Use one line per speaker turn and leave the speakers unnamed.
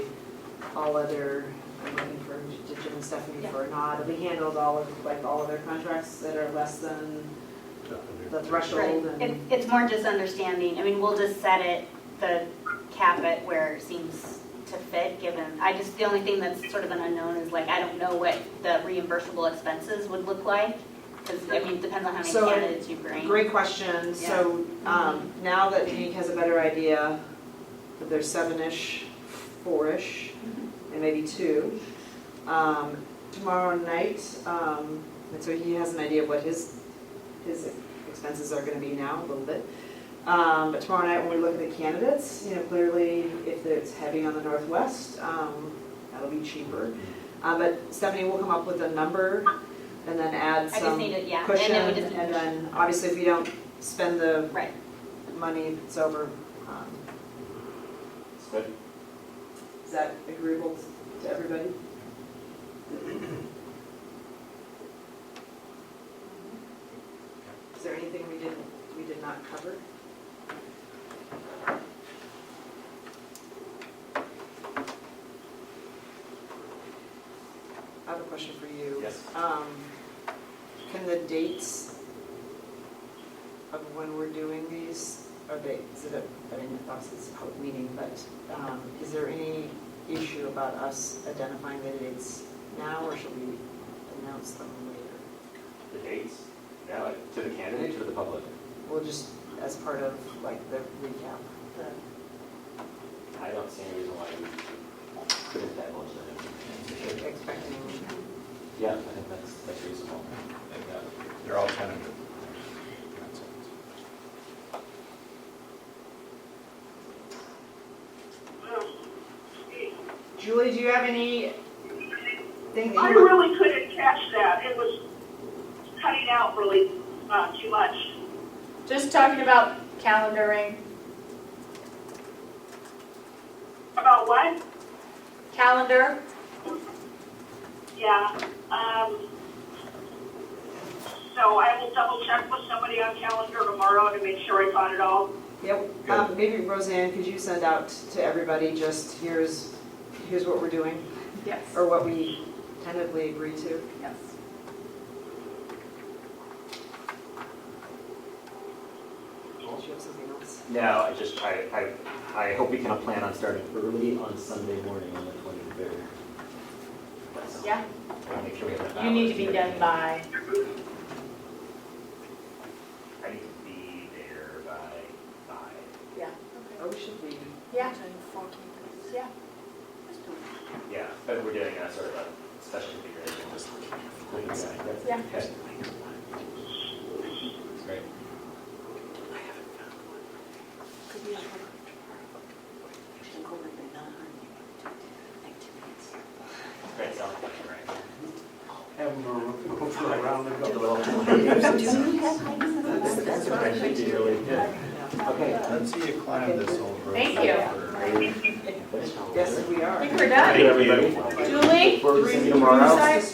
all other, I'm looking for, to Jim and Stephanie for a nod, we handled all of, like, all other contracts that are less than the
Right,
threshold
It-
and.
it's more just understanding, I mean, we'll just set it, the cap it where it seems to fit, given, I just, the only thing that's sort of an unknown is like, I don't know what the reimbursable expenses would look like, because, I mean, it depends on how many
So,
candidates you bring.
Great question, so, um, now that Hank has a better idea, that there's seven-ish, four-ish, and maybe two. Um, tomorrow night, um, and so he has an idea of what his, his expenses are gonna be now, a little bit. Um, but tomorrow night, when we look at the candidates, you know, clearly, if it's heavy on the northwest, um, that'll be cheaper. Uh, but Stephanie will come up with a number and then add
I
some
just need
cushion,
it, yeah, and then we
and
just need to-
then, obviously, if we don't spend the
Right,
money, it's over. Um, Is that agreeable to everybody? Is there anything we didn't, we did not cover? I have a question for you.
Yes.
Um, Can the dates of when we're doing these, are they, is it a, I mean, obviously it's a public meeting, but um, is there any issue about us identifying the dates now, or should we announce them later?
The dates, now, to the candidate, to the public?
Well, just as part of like the recap. the-
I don't see any reason why we couldn't divulge that information.
Expecting,
Yeah, I think that's, that's reasonable.
They're all tentative.
Julie, do you have any thing
I
that you,
really couldn't catch that. It was cutting out really uh, too much.
Just talking about calendaring,
About what?
calendar,
Yeah. Um, so I will double check with somebody on calendar tomorrow to make sure I caught it all.
yeah,
Good.
um, maybe Roseanne, could you send out to everybody just here's, here's what we're doing?
yes,
Or what we tentatively agree to?
yes.
Unless you have something else.
No, I just, I, I, I hope we can plan on starting early on Sunday morning on the twenty-third.
Yeah,
I'll make sure we have enough
you need to
hours
be
here.
done by,
I need to be there by five.
yeah.
Oh, should we?
Yeah, yeah.
Yeah, but we're doing a sort of a special configuration. just like- that's-
Yeah.
okay. Great. Great, sounds good, right?
Have them go go for a round and
The
go.
little-
Do we have hikes?
That's what I should do, really. Yeah. Okay.
Let's see you climb this whole road.
Thank you.
Yes, we are.
I think we're
Thank
done.
you, everybody.
Julie?
We're seeing
Three
you tomorrow.
sides.